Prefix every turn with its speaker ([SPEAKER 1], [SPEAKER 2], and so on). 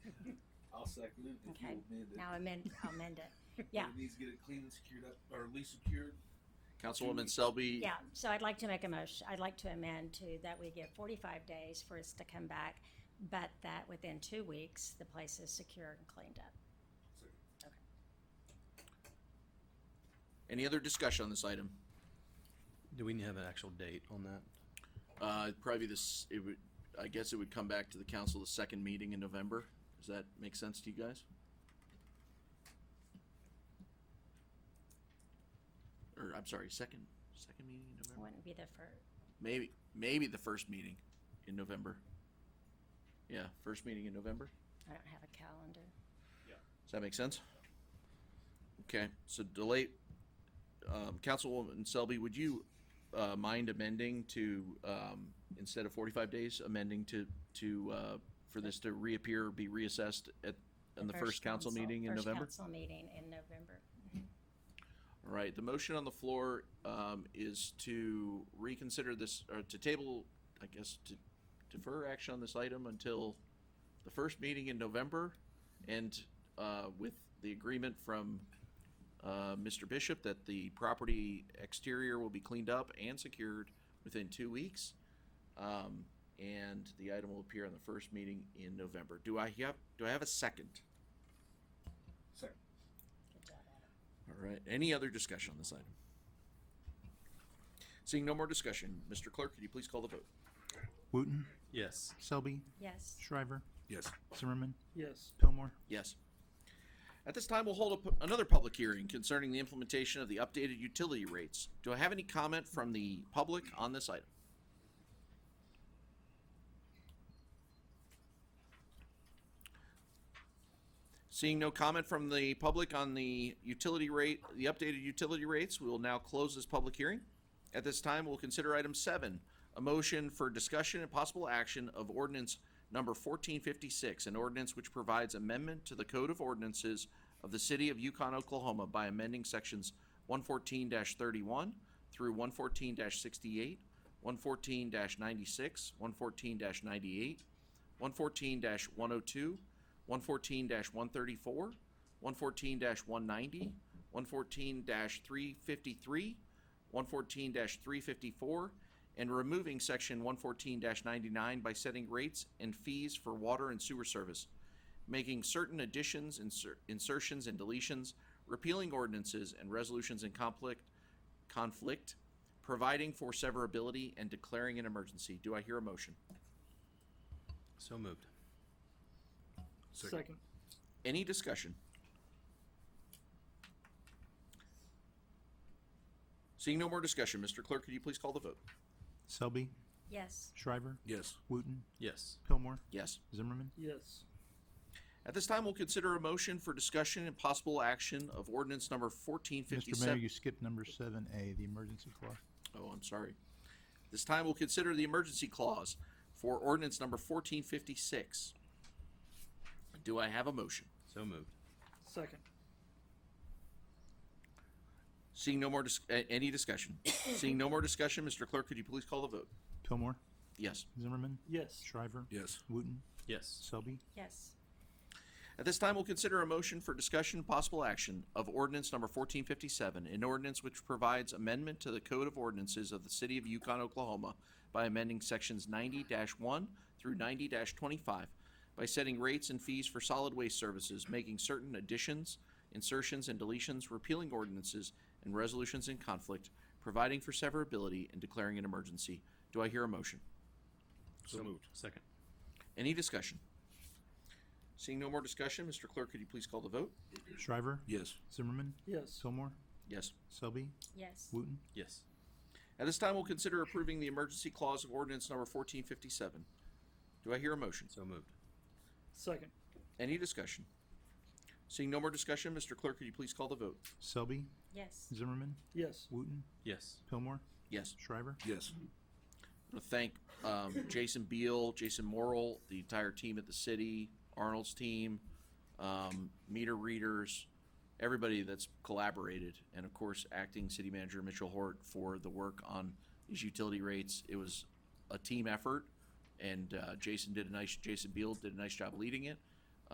[SPEAKER 1] seconded. If
[SPEAKER 2] Okay.
[SPEAKER 1] you amend it.
[SPEAKER 2] Now amend, I'll amend it. yeah.
[SPEAKER 1] It needs to get it clean and secured up, or at least secured.
[SPEAKER 3] Councilwoman Selby,
[SPEAKER 2] Yeah, so I'd like to make a motion, I'd like to amend to that we give forty-five days for us to come back, but that within two weeks, the place is secure and cleaned up.
[SPEAKER 1] So,
[SPEAKER 3] any other discussion on this item?
[SPEAKER 4] Do we have an actual date on that?
[SPEAKER 3] Uh, probably this, it would, I guess it would come back to the council the second meeting in November. Does that make sense to you guys? Or, I'm sorry, second, second meeting in
[SPEAKER 2] It
[SPEAKER 3] November?
[SPEAKER 2] Wouldn't be the fir-,
[SPEAKER 3] Maybe, maybe the first meeting in November. Yeah, first meeting in November.
[SPEAKER 2] I don't have a calendar.
[SPEAKER 3] Does that make sense? Okay, so delay, um, Councilwoman Selby, would you, uh, mind amending to, um, instead of forty-five days, amending to, to, uh, for this to reappear, be reassessed at, in the first council meeting in
[SPEAKER 2] first
[SPEAKER 3] November?
[SPEAKER 2] council meeting in November.
[SPEAKER 3] All right, the motion on the floor, um, is to reconsider this, or to table, I guess, to defer action on this item until the first meeting in November, and, uh, with the agreement from, uh, Mr. Bishop that the property exterior will be cleaned up and secured within two weeks. Um, and the item will appear on the first meeting in November. Do I have, do I have a second?
[SPEAKER 1] Second.
[SPEAKER 2] Good job, Adam.
[SPEAKER 3] All right. Any other discussion on this item? Seeing no more discussion, Mr. Clerk, could you please call the vote?
[SPEAKER 5] Wooten,
[SPEAKER 4] Yes.
[SPEAKER 5] Selby,
[SPEAKER 2] Yes,
[SPEAKER 5] Shriver,
[SPEAKER 1] Yes.
[SPEAKER 5] Zimmerman,
[SPEAKER 4] Yes.
[SPEAKER 5] Pillmore.
[SPEAKER 3] Yes. At this time, we'll hold up another public hearing concerning the implementation of the updated utility rates. Do I have any comment from the public on this item? Seeing no comment from the public on the utility rate, the updated utility rates, we will now close this public hearing. At this time, we'll consider item seven, a motion for discussion and possible action of ordinance number fourteen fifty-six, an ordinance which provides amendment to the Code of Ordinances of the City of Yukon, Oklahoma by amending sections one fourteen thirty-one through one fourteen sixty-eight, one fourteen ninety-six, one fourteen ninety-eight, one fourteen one oh two, one fourteen one thirty-four, one fourteen one ninety, one fourteen three fifty-three, one fourteen three fifty-four, and removing section one fourteen ninety-nine by setting rates and fees for water and sewer service, making certain additions, insert, insertions, and deletions, repealing ordinances and resolutions in conflict, conflict, providing for severability and declaring an emergency. Do I hear a motion?
[SPEAKER 4] So moved.
[SPEAKER 5] Second.
[SPEAKER 3] Any discussion? Seeing no more discussion, Mr. Clerk, could you please call the vote?
[SPEAKER 5] Selby,
[SPEAKER 2] yes,
[SPEAKER 5] Shriver,
[SPEAKER 1] Yes.
[SPEAKER 5] Wooten,
[SPEAKER 4] Yes.
[SPEAKER 5] Pillmore,
[SPEAKER 3] Yes.
[SPEAKER 5] Zimmerman.
[SPEAKER 1] Yes.
[SPEAKER 3] At this time, we'll consider a motion for discussion and possible action of ordinance number fourteen
[SPEAKER 5] Mr. Mayor,
[SPEAKER 3] fifty-seven.
[SPEAKER 5] you skipped number seven A, the emergency clause.
[SPEAKER 3] Oh, I'm sorry. This time, we'll consider the emergency clause for ordinance number fourteen fifty-six. Do I have a motion?
[SPEAKER 4] So moved.
[SPEAKER 1] Second.
[SPEAKER 3] Seeing no more, dis- a- any discussion? Seeing no more discussion, Mr. Clerk, could you please call the vote?
[SPEAKER 5] Pillmore,
[SPEAKER 3] Yes.
[SPEAKER 5] Zimmerman,
[SPEAKER 1] Yes.
[SPEAKER 5] Shriver,
[SPEAKER 1] Yes.
[SPEAKER 5] Wooten,
[SPEAKER 4] Yes.
[SPEAKER 5] Selby,
[SPEAKER 2] yes,
[SPEAKER 3] At this time, we'll consider a motion for discussion and possible action of ordinance number fourteen fifty-seven, an ordinance which provides amendment to the Code of Ordinances of the City of Yukon, Oklahoma by amending sections ninety one through ninety twenty-five by setting rates and fees for solid waste services, making certain additions, insertions, and deletions, repealing ordinances and resolutions in conflict, providing for severability, and declaring an emergency. Do I hear a motion?
[SPEAKER 4] So moved. Second.
[SPEAKER 3] Any discussion? Seeing no more discussion, Mr. Clerk, could you please call the vote?
[SPEAKER 5] Shriver,
[SPEAKER 1] Yes.
[SPEAKER 5] Zimmerman,
[SPEAKER 1] Yes.
[SPEAKER 5] Pillmore,
[SPEAKER 3] Yes.
[SPEAKER 5] Selby,
[SPEAKER 2] yes,
[SPEAKER 5] Wooten,
[SPEAKER 4] Yes.
[SPEAKER 3] At this time, we'll consider approving the emergency clause of ordinance number fourteen fifty-seven. Do I hear a motion?
[SPEAKER 4] So moved.
[SPEAKER 1] Second.
[SPEAKER 3] Any discussion? Seeing no more discussion, Mr. Clerk, could you please call the vote?
[SPEAKER 5] Selby,
[SPEAKER 2] yes,
[SPEAKER 5] Zimmerman,
[SPEAKER 1] Yes.
[SPEAKER 5] Wooten,
[SPEAKER 4] Yes.
[SPEAKER 5] Pillmore,
[SPEAKER 3] Yes.
[SPEAKER 5] Shriver.
[SPEAKER 1] Yes.
[SPEAKER 3] I want to thank um, Jason Beal, Jason Morrill, the entire team at the city, Arnold's team, um, meter readers, everybody that's collaborated, and of course, acting city manager Mitchell Hort for the work on these utility rates. It was a team effort, and uh, Jason did a nice. Jason Beal did a nice job leading it,